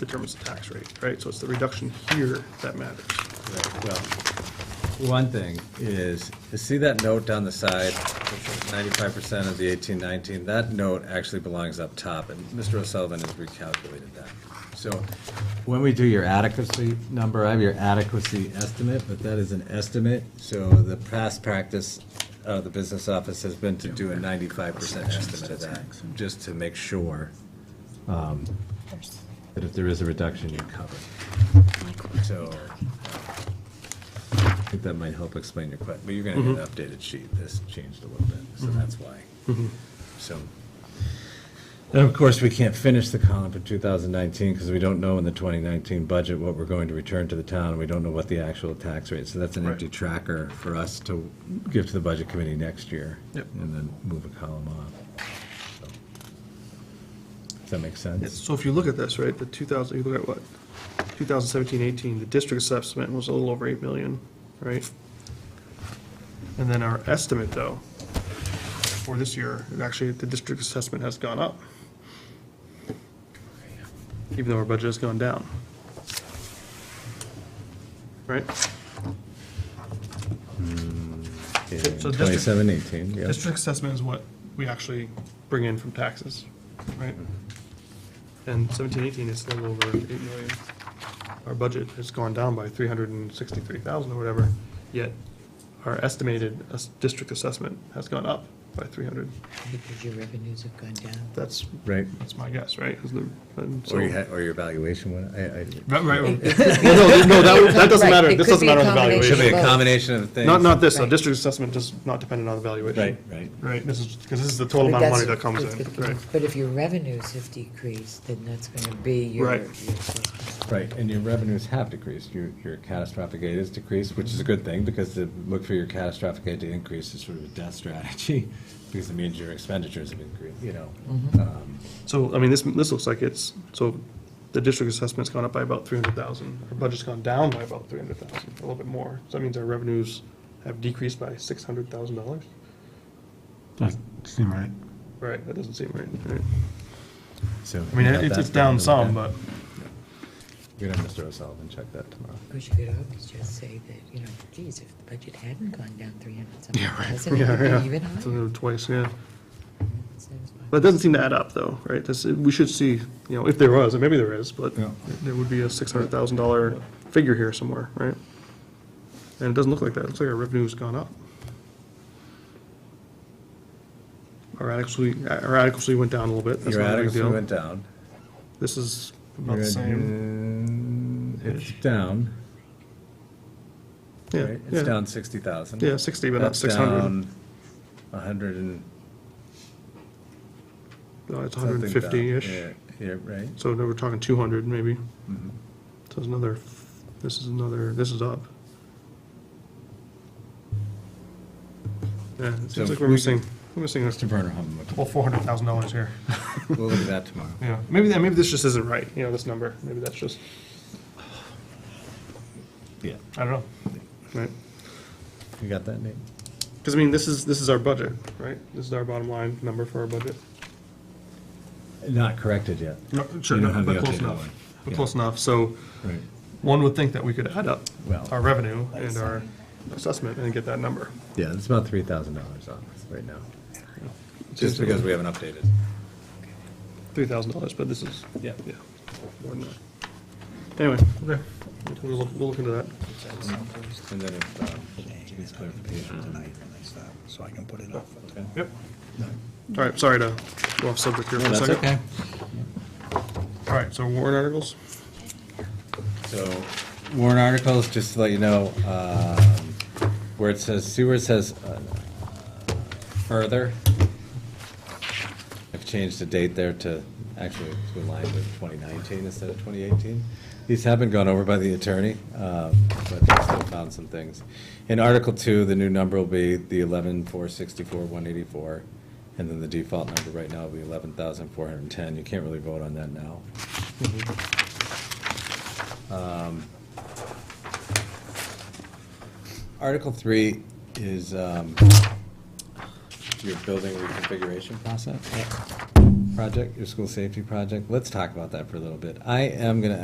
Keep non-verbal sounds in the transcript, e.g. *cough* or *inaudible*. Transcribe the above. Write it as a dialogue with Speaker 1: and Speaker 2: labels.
Speaker 1: determines the tax rate, right? So it's the reduction here that matters.
Speaker 2: Right, Well, one thing is, you see that note down the side, ninety-five percent of the eighteen nineteen, that note actually belongs up top, and Mr. O'Sullivan has recalculated that. So when we do your adequacy number, I have your adequacy estimate, but that is an estimate. So the past practice of the business office has been to do a ninety-five percent estimate of that, just to make sure um, that if there is a reduction, you're covered. So, uh, I think that might help explain your question, but you're gonna
Speaker 1: Mm-hmm.
Speaker 2: get an updated sheet, this changed a little bit, so that's why.
Speaker 1: Mm-hmm.
Speaker 2: So, and of course, we can't finish the column for 2019, because we don't know in the 2019 budget what we're going to return to the town, and we don't know what the actual tax rate, so that's an
Speaker 1: Right.
Speaker 2: empty tracker for us to give to the budget committee next year.
Speaker 1: Yep.
Speaker 2: And then move a column off. So, Does that make sense?
Speaker 1: So if you look at this, right, the 2000, you look at what? 2017, 18, the district assessment was a little over 8 million, right? And then our estimate, though, for this year, and actually, the district assessment has gone up. Even though our budget has gone down. Right?
Speaker 2: Yeah,
Speaker 1: so district-
Speaker 2: 27, 18, yeah.
Speaker 1: District assessment is what we actually bring in from taxes, right? And seventeen, eighteen is a little over eight million. Our budget has gone down by three hundred and sixty-three thousand or whatever, yet our estimated as- district assessment has gone up by three hundred.
Speaker 3: Because your revenues have gone down.
Speaker 1: That's,
Speaker 2: Right.
Speaker 1: that's my guess, right? Is the- and so-
Speaker 2: Or you had, or your valuation went, I, I.
Speaker 1: Right, right.
Speaker 3: *laughs*
Speaker 1: No, no, that, that doesn't
Speaker 3: Right,
Speaker 1: matter,
Speaker 3: it
Speaker 1: this
Speaker 3: could
Speaker 1: doesn't
Speaker 3: be a
Speaker 1: matter on the
Speaker 3: combination.
Speaker 2: Should be
Speaker 1: valuation.
Speaker 2: a
Speaker 3: Both.
Speaker 2: combination of things.
Speaker 1: Not, not this, though,
Speaker 3: Right.
Speaker 1: district assessment does not dependent on the valuation.
Speaker 2: Right, right.
Speaker 1: Right, this is, because this is the total amount of money that comes in, right?
Speaker 3: But if your revenues have decreased, then that's going to be your.
Speaker 1: Right.
Speaker 3: your assessment.
Speaker 2: Right, and your revenues have decreased, your, your catastrophic aid has decreased, which is a good thing, because to look for your catastrophic aid to increase is sort of a death strategy, *laughs* because it means your expenditures have increased, you know. Um,
Speaker 1: So, I mean, this, this looks like it's, so the district assessment's gone up by about three hundred thousand, our budget's gone down by about three hundred thousand, a little bit more. So that means our revenues have decreased by six hundred thousand dollars?
Speaker 4: Doesn't seem right.
Speaker 1: Right, that doesn't seem right, right?
Speaker 2: So.
Speaker 1: I mean,
Speaker 2: you got
Speaker 1: it's,
Speaker 2: that
Speaker 1: it's down
Speaker 2: to look
Speaker 1: some,
Speaker 2: at.
Speaker 1: but,
Speaker 2: We're gonna have Mr. O'Sullivan check that tomorrow.
Speaker 3: Because you could always just say that, you know, geez, if the budget hadn't gone down three hundred something
Speaker 4: Yeah, right.
Speaker 3: thousand,
Speaker 1: *laughs*
Speaker 3: it
Speaker 1: yeah,
Speaker 3: would
Speaker 1: yeah.
Speaker 3: be even
Speaker 1: It's a
Speaker 3: higher.
Speaker 1: little Twice, yeah.
Speaker 3: It seems like-
Speaker 1: But it doesn't seem to add up, though, right? This, we should see, you know, if there was, and maybe there is, but
Speaker 2: Yeah.
Speaker 1: there would be a six hundred thousand dollar figure here somewhere, right? And it doesn't look like that. It looks like our revenue's gone up. Our adequacy, our adequacy went down a little bit. That's
Speaker 2: Your
Speaker 1: not a big
Speaker 2: adequacy
Speaker 1: deal.
Speaker 2: went down.
Speaker 1: This is about
Speaker 2: Your
Speaker 1: the
Speaker 2: ad-
Speaker 1: same.
Speaker 2: mm, It's down,
Speaker 1: Yeah,
Speaker 2: right? It's
Speaker 1: yeah.
Speaker 2: down sixty thousand.
Speaker 1: Yeah, sixty, but not six hundred.
Speaker 2: A hundred and.
Speaker 1: No, it's
Speaker 2: something
Speaker 1: hundred and fifty-ish.
Speaker 2: down. Yeah, yeah, right.
Speaker 1: So now we're talking two hundred maybe.
Speaker 2: Mhm.
Speaker 1: So it's another, this is another, this is up. Yeah, it
Speaker 2: So
Speaker 1: seems like
Speaker 2: if
Speaker 1: we're
Speaker 2: we
Speaker 1: missing, we're missing this,
Speaker 2: Mr. Berner, how much?
Speaker 1: well, four hundred thousand dollars here.
Speaker 2: We'll look at that tomorrow.
Speaker 1: Yeah, maybe that, maybe this just isn't right, you know, this number, maybe that's just,
Speaker 2: *laughs* Yeah.
Speaker 1: I don't know. Right,
Speaker 2: You got that, Nate?
Speaker 1: because I mean, this is, this is our budget, right? This is our bottom line number for our budget.
Speaker 2: Not corrected yet.
Speaker 1: No,
Speaker 2: sure, You don't no, have but the close updated enough. one.
Speaker 1: But
Speaker 2: Yeah.
Speaker 1: close enough, so
Speaker 2: Right.
Speaker 1: one would think that we could add up
Speaker 2: Well-
Speaker 1: our revenue and our assessment and get that number.
Speaker 2: Yeah, it's about three thousand dollars on this right now.
Speaker 1: Seems
Speaker 2: Just
Speaker 1: to be-
Speaker 2: because we haven't updated.
Speaker 1: three thousand dollars, but this is,
Speaker 2: Yeah.
Speaker 1: yeah, more than that. Anyway, okay, we'll, look- we'll look into that.
Speaker 2: And then if, um, needs clarification tonight.
Speaker 4: So I can put it up.
Speaker 2: Okay.
Speaker 1: Yep. All right, sorry to go off subject here for a
Speaker 2: That's
Speaker 1: second.
Speaker 2: okay.
Speaker 1: All right, so warrant articles?
Speaker 2: So warrant articles, just to let you know, um, where it says, see where it says uh, further? I've changed the date there to, actually, to align with 2019 instead of 2018. These have been gone over by the attorney, um, but they still found some things. In Article 2, the new number will be the 11,464, 184, and then the default number right now will be 11,410. You can't really vote on that now. Article three is um, your building reconfiguration process. project, your school safety project, let's talk about that for a little bit. I am gonna